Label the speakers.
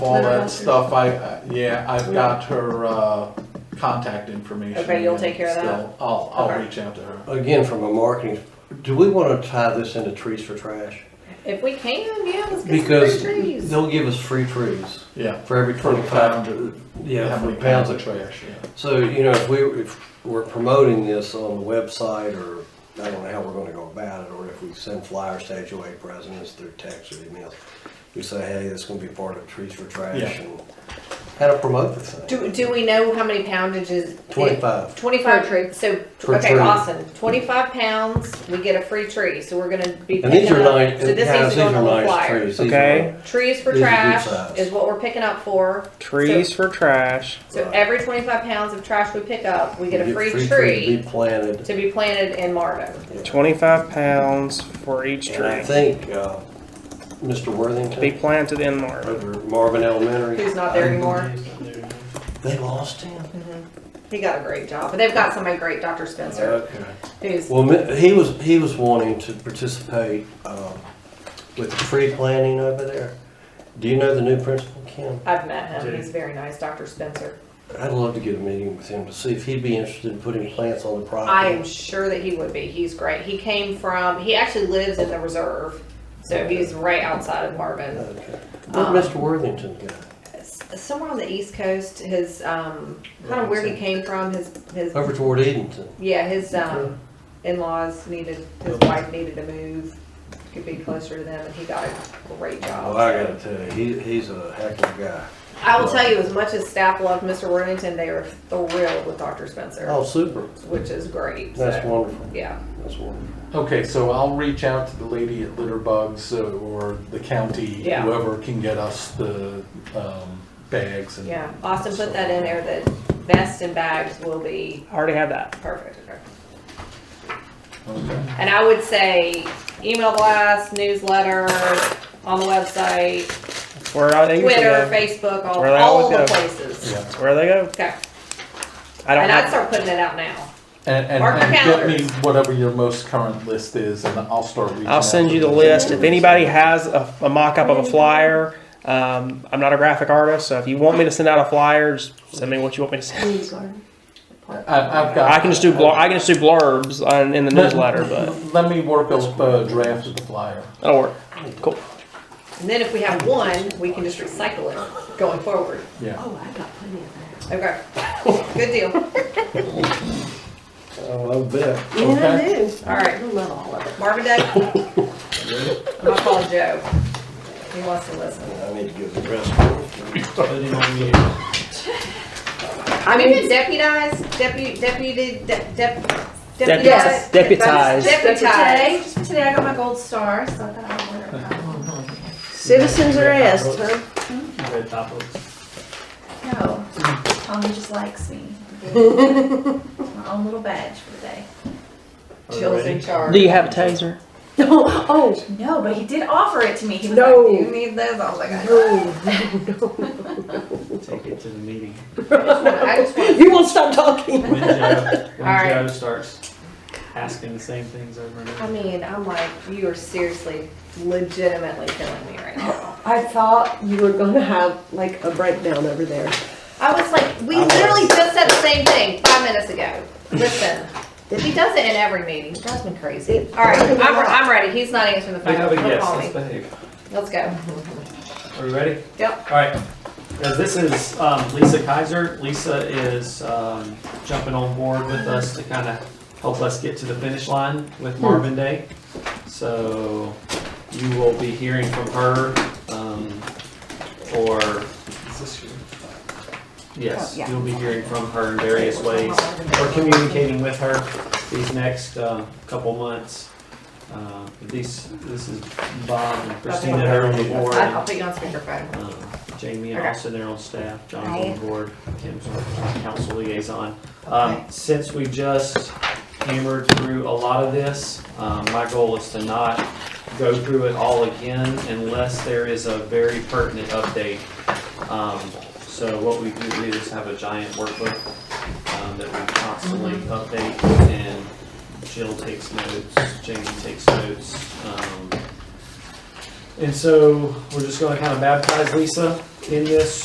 Speaker 1: all
Speaker 2: Literally.
Speaker 1: that stuff, I- I, yeah, I've got her, uh, contact information.
Speaker 2: Okay, you'll take care of that?
Speaker 1: still. I'll, I'll
Speaker 2: Okay.
Speaker 1: reach out to her.
Speaker 3: Again, from a marketing, do we want to tie this into trees for trash?
Speaker 2: If we can, yeah, let's get
Speaker 3: Because
Speaker 2: some free trees.
Speaker 3: they'll give us free trees
Speaker 1: Yeah.
Speaker 3: for every
Speaker 1: For the pound,
Speaker 3: twenty-five.
Speaker 1: of-
Speaker 3: Yeah,
Speaker 1: how
Speaker 3: for
Speaker 1: many
Speaker 3: pounds of
Speaker 1: trash, yeah.
Speaker 3: So, you know, if we, if we're promoting this on the website or I don't know how we're gonna go about it, or if we send flyers to HOA presidents through text or emails, we say, hey, this is gonna be part of Trees for Trash
Speaker 1: Yeah.
Speaker 3: and how to promote the thing.
Speaker 2: Do, do we know how many poundages?
Speaker 3: Twenty-five.
Speaker 2: Twenty-five
Speaker 4: Per
Speaker 2: tree, so,
Speaker 3: Per
Speaker 2: okay,
Speaker 3: tree.
Speaker 2: awesome, twenty-five pounds, we get a free tree, so we're gonna be
Speaker 3: And these
Speaker 2: picking
Speaker 3: are
Speaker 2: up.
Speaker 3: nice,
Speaker 2: So this
Speaker 3: guys,
Speaker 2: needs to
Speaker 3: these
Speaker 2: go on the
Speaker 3: are
Speaker 2: little
Speaker 3: nice
Speaker 2: flyer.
Speaker 3: trees. These are-
Speaker 4: Okay.
Speaker 2: Trees for
Speaker 3: These are good
Speaker 2: trash
Speaker 3: size.
Speaker 2: is what we're picking up for,
Speaker 4: Trees for trash.
Speaker 2: so
Speaker 3: Right.
Speaker 2: every twenty-five pounds of trash we pick up, we get a
Speaker 3: You
Speaker 2: free
Speaker 3: trees
Speaker 2: tree
Speaker 3: To be planted.
Speaker 2: to be planted in Marvin.
Speaker 3: Yeah.
Speaker 4: 25 pounds for each
Speaker 3: And I
Speaker 4: tree.
Speaker 3: think, uh, Mr.
Speaker 4: To be
Speaker 3: Worthington
Speaker 4: planted in Marvin.
Speaker 3: over at Marvin Elementary.
Speaker 2: Who's not there anymore,
Speaker 3: They lost him?
Speaker 2: he got a great job, but they've got somebody great, Dr. Spencer,
Speaker 3: Okay.
Speaker 2: who's,
Speaker 3: Uh, Well, mi- he was, he was wanting to participate, um, with the tree planting over there. Do you know the new principal, Kim?
Speaker 2: I've met him, he's very nice, Dr. Spencer.
Speaker 3: I'd love to get a meeting with him to see if he'd be interested in putting plants on the
Speaker 2: I am
Speaker 3: property.
Speaker 2: sure that he would be. He's great. He came from, he actually lives in the reserve. So he's right outside of Marvin.
Speaker 3: Okay.
Speaker 2: Um,
Speaker 3: Where'd Mr. Worthington go?
Speaker 2: S- Somewhere on the East Coast, his, um, kind of where he came from, his, his,
Speaker 3: Over toward Edenton.
Speaker 2: yeah, his, um, in-laws needed, his wife needed to move. Could be closer to them and he got a great
Speaker 3: Well,
Speaker 2: job.
Speaker 3: Oh, I gotta tell you, he, he's a heck of a guy.
Speaker 2: I will tell you, as much as staff loved Mr. Worthington, they were thrilled with Dr. Spencer,
Speaker 3: Oh, super.
Speaker 2: which is great.
Speaker 3: That's
Speaker 2: So,
Speaker 3: wonderful.
Speaker 2: Yeah.
Speaker 3: That's wonderful.
Speaker 1: Okay, so I'll reach out to the lady at Litter Bugs uh, or the county,
Speaker 2: Yeah.
Speaker 1: whoever can get us the, um, bags and.
Speaker 2: Yeah, Austin put that in there, that vests and bags will be
Speaker 4: I already had that.
Speaker 2: perfect. okay.
Speaker 1: Okay.
Speaker 2: And I would say email blast, newsletter, on the website,
Speaker 4: That's where I think they
Speaker 2: Twitter,
Speaker 4: go.
Speaker 2: Facebook, all,
Speaker 4: Where they
Speaker 2: all
Speaker 4: always
Speaker 2: the
Speaker 4: go.
Speaker 2: places.
Speaker 1: Yeah,
Speaker 4: That's where they go.
Speaker 2: Okay,
Speaker 4: I don't
Speaker 2: and I'd
Speaker 4: have.
Speaker 2: start putting it out now.
Speaker 1: and, and,
Speaker 2: Mark your
Speaker 1: and get me
Speaker 2: calendars.
Speaker 1: whatever your most current list is and I'll start reaching out.
Speaker 4: I'll send
Speaker 1: to
Speaker 4: you the
Speaker 1: them.
Speaker 4: list. If anybody has a, a mock up of a flyer, um, I'm not a graphic artist, so if you want me to send out a flyer, just send me what you want me to send.
Speaker 1: I, I've got.
Speaker 4: I can just do blur- I can just do blurbs on, in the
Speaker 1: Let-
Speaker 4: newsletter, but
Speaker 1: Let me work up a draft of the flyer.
Speaker 4: that'll work. Cool.
Speaker 2: And then if we have one, we can just recycle it going forward.
Speaker 1: Yeah.
Speaker 5: Oh, I got plenty of that.
Speaker 2: Okay, good deal.
Speaker 3: Oh, I bet.
Speaker 5: Yeah, I
Speaker 1: Okay.
Speaker 5: do.
Speaker 2: All right.
Speaker 5: I love all of it.
Speaker 2: Marvin Day. I'm gonna call Joe. He wants to listen.
Speaker 3: I need to give the rest.
Speaker 2: I mean, deputized, deputy, deputy, de- dep-
Speaker 4: Depu-
Speaker 2: deputized.
Speaker 4: deputized.
Speaker 2: Deputized.
Speaker 5: Just for today, I got my gold star, so I thought I would Citizens arrest, huh?
Speaker 6: No, Tommy just likes me. My own little badge for the day.
Speaker 2: Jill's in charge.
Speaker 4: Do you have a taser?
Speaker 5: Oh, oh,
Speaker 6: No, but he did offer it to me. He was
Speaker 5: No.
Speaker 6: like, "Do you need this?" I was like, "I don't."
Speaker 5: no, no, no.
Speaker 7: Take it to the meeting.
Speaker 2: I just want,
Speaker 5: You won't stop talking.
Speaker 7: When Joe, when
Speaker 2: All right.
Speaker 7: Joe starts asking the same things over and
Speaker 2: I
Speaker 7: over.
Speaker 2: mean, I'm like, you are seriously, legitimately killing me right now.
Speaker 5: I thought you were gonna have like a breakdown over there.
Speaker 2: I was like, we literally just said the same thing five minutes ago. Listen, he does it in every meeting. It drives me crazy. All right, I'm, I'm ready. He's not answering the phone.
Speaker 7: We have a
Speaker 2: Don't
Speaker 7: yes,
Speaker 2: call
Speaker 7: let's
Speaker 2: me.
Speaker 7: behave.
Speaker 2: Let's go.
Speaker 7: Are we ready?
Speaker 2: Yep.
Speaker 7: All right, guys, this is um, Lisa Kaiser. Lisa is um, jumping on board with us to kind of help us get to the finish line with
Speaker 5: Hmm.
Speaker 7: Marvin Day. So you will be hearing from her um, or,
Speaker 1: Is this your?
Speaker 7: yes,
Speaker 5: Oh, yeah.
Speaker 7: you'll be hearing from her in various ways. We're communicating with her these next uh, couple months. Uh, These, this is Bob and Christina that are on the board.
Speaker 2: I- I'll put you on speakerphone.
Speaker 7: Um, Jamie and
Speaker 2: Okay.
Speaker 7: Austin are on staff, John's
Speaker 2: Hi.
Speaker 7: on board, Kim's our council liaison. Um, Since we just hammered through a lot of this, um, my goal is to not go through it all again unless there is a very pertinent update. Um, So what we do do is have a giant workbook um, that we constantly update and Jill takes notes, Jamie takes notes. um, And so we're just gonna kind of baptize Lisa in this